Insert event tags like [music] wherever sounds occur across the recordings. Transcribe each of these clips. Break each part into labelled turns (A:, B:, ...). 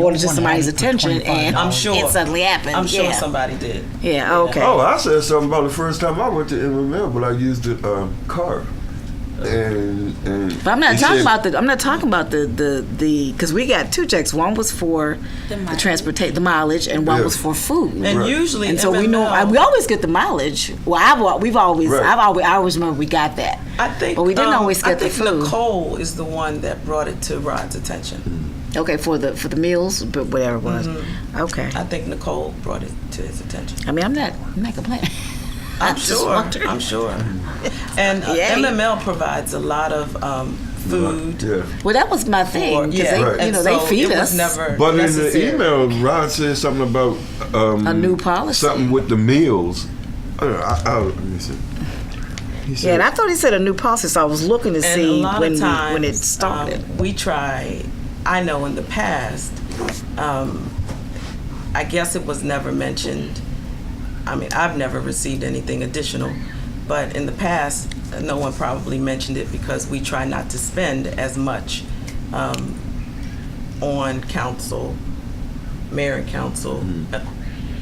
A: brought it to somebody's attention and
B: I'm sure.
A: it suddenly happened.
B: I'm sure
A: yeah.
B: somebody did.
A: Yeah, okay.
C: Oh, I said something about the first time I went to MMA, but I used the um, car. And, and
A: But I'm not
C: he
A: talking
C: said-
A: about the. I'm not talking about the the the because we got two checks. One was for the, transportation, the mileage, and one
C: Yeah.
A: was for food.
B: And
C: Right.
B: usually,
A: and so we
B: FML
A: know I, we always get the mileage. Well, I've al- we've always
C: Right.
A: I've always I always remember we got that.
B: I think,
A: but we didn't
B: um,
A: always
B: I
A: get the
B: think
A: food.
B: Nicole is the one that brought it to Rod's attention.
A: Okay, for the for the meals, but whatever it was.
B: Mm-hmm.
A: Okay.
B: I think Nicole brought it to his attention.
A: I mean, I'm not I'm not complaining. [laughs]
B: I'm
A: just
B: sure.
A: wondered. [laughs]
B: I'm sure. And uh,
A: Yay.
B: MML provides a lot of um, food.
C: Yeah.
A: Well, that was my thing. 'cause
B: yeah,
A: they,
C: Right.
A: you
B: and
A: know,
B: so
A: they feed
B: it
A: us.
B: Was never
C: But
B: necessary.
C: in the email, Rod said something about um,
A: A new policy.
C: Something with the meals. I, don't know, I, I, let me see. He
A: yeah,
C: said,
A: and I thought he said a new policy, so I was looking to
B: and a
A: see
B: lot
A: when
B: of
A: we-
B: times,
A: when it started.
B: um, we try. I know in the past, um, I guess it was never mentioned. I mean, I've never received anything additional, but in the past, no one probably mentioned it because we try not to spend as much um, on council, mayor and council
A: Mm-hmm.
B: uh,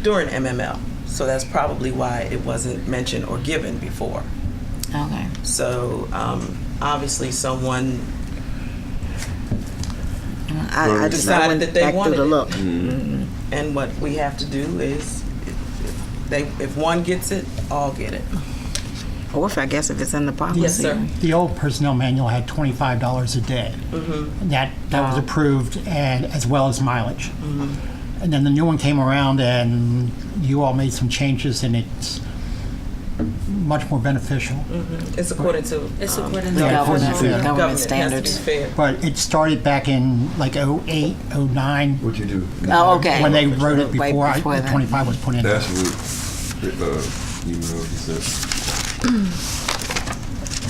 B: during MML. So that's probably why it wasn't mentioned or given before. um,
A: okay.
B: So um, obviously, someone
A: I, I just I
B: Decided
A: went
B: that they
A: back through
B: wanted
A: the
B: it.
A: look.
B: and what we have to do is, if- if they if one gets it, all get it.
A: Or if I guess if it's in the policy.
B: Yes, sir.
D: The old personnel manual had twenty-five dollars a day.
A: Mm-hmm.
D: That, that was approved and, as well as mileage.
A: Mm-hmm.
D: And then the new one came around and you all made some changes and it's much more beneficial.
B: [laughs]
A: Mm-hmm.
B: It's according to
E: It's
B: um,
E: according to
D: Yeah,
E: the
D: according
E: government.
D: to-
A: government
B: government
A: standards.
B: It has to be fair.
D: But it started back in like oh eight, oh nine,
C: what you do?
A: Oh, okay.
D: when they wrote it
A: Right
D: before I-
A: before
D: the
A: then.
D: twenty-five was put in.
C: That's what the uh, email he said.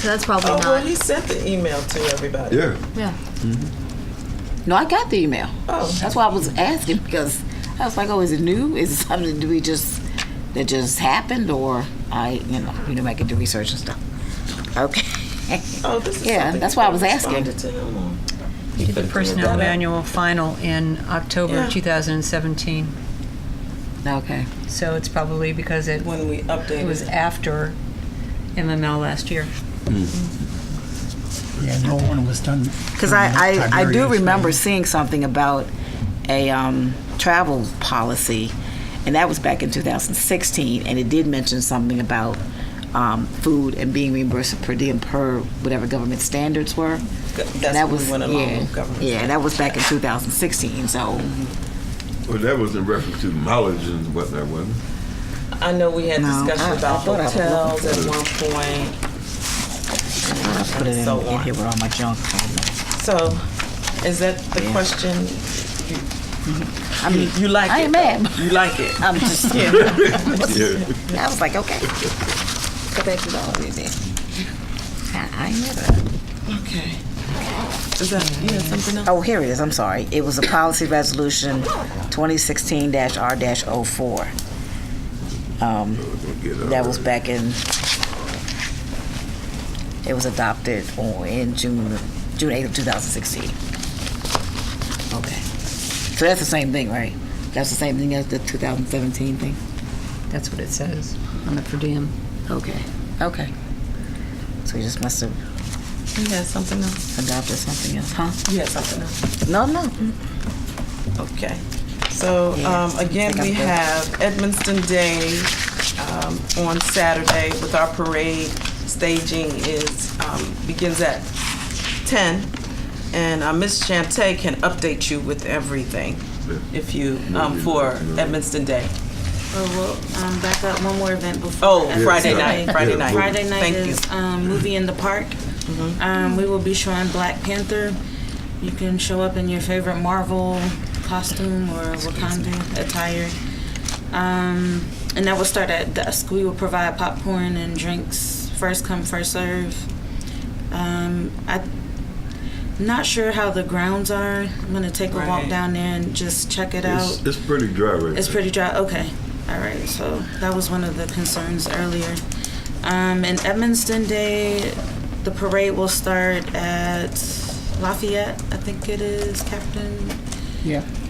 E: So that's probably
B: Oh, well,
E: not.
B: he sent the email to everybody.
C: Yeah.
E: Yeah.
A: No, I got the email.
B: Oh.
A: That's why I was asking because I was like, oh, is it new? Is it something do we just that just happened or I you know, you know I can do research and stuff. Okay.
B: Oh, this is
A: Yeah,
B: something
A: that's why I was
B: you
A: asking.
B: responded to him on.
F: We did the personnel
B: that.
F: manual final in October
B: Yeah.
F: of 2017,
A: okay.
F: so it's probably because it
B: When we
F: it was
B: updated,
F: after MML last year.
D: Yeah, the old one was done.
A: Because I, I, I do
D: Mm-hmm. Tiberius, right?
A: remember seeing something about a um, travel policy, and that was back in 2016, and it did mention something about um, food and being reimbursed per diem per whatever government standards were.
B: that's
A: that
B: when we
A: was
B: went along
A: yeah,
B: with government
A: yeah, that was back in 2016. So
C: Well, that was in reference to mileage and whatnot, wasn't it?
B: I know we had
A: No,
B: discussion
A: I- I
B: about
A: thought I was looking
B: hotels
A: for
B: at
C: it.
B: one point.
A: I put it in,
B: So
A: in
B: on.
A: here with all my junk.
B: So, is that the question?
A: I mean,
B: You like
A: I
B: it?
A: ain't mad.
B: You like it?
A: I'm [laughs] just
C: [laughs] Yeah.
A: I was like, okay, go back to the old music. I, I ain't mad at it.
B: Okay. Is that you had something else?
A: Oh, here it is. I'm sorry. It was a policy resolution 2016-R-04. Um, that was back in. It was adopted on, in June June 8th of 2016. Okay. So that's the same thing, right? That's the same thing as the 2017 thing.
F: That's what it says on the per diem.
A: Okay. Okay. So you just must have
B: You had something else?
A: adopted something else, huh?
B: You had something else?
A: No, no.
B: Okay. So
A: Yeah,
B: um, again,
A: think I'm
B: we
A: good.
B: have Edmiston Day um, on Saturday with our parade. Staging is, um, begins at 10. And uh, Ms. Shante can update you with everything if you, um, for Edmiston Day.
E: Well, we'll um, back up one more event before.
B: Oh,
E: that.
B: Friday
C: yeah.
B: night, Friday
C: Yeah,
B: night.
E: Friday night
B: Thank you. Mm-hmm.
E: is um, movie in the park. Um, we will be showing Black Panther. You can show up in your favorite Marvel costume or Wakanda attire. Um, and that will start at dusk. We will provide popcorn and drinks, first come, first serve. Um, I'm not sure how the grounds are. I'm going to take a walk
B: Right.
E: down there and just check it out.
C: It's, it's pretty dry right
E: It's
C: now.
E: pretty dry. Okay. All right. So that was one of the concerns earlier. Um, and Edmonston Day, the parade will start at Lafayette, I think it is, Captain.
D: Yeah.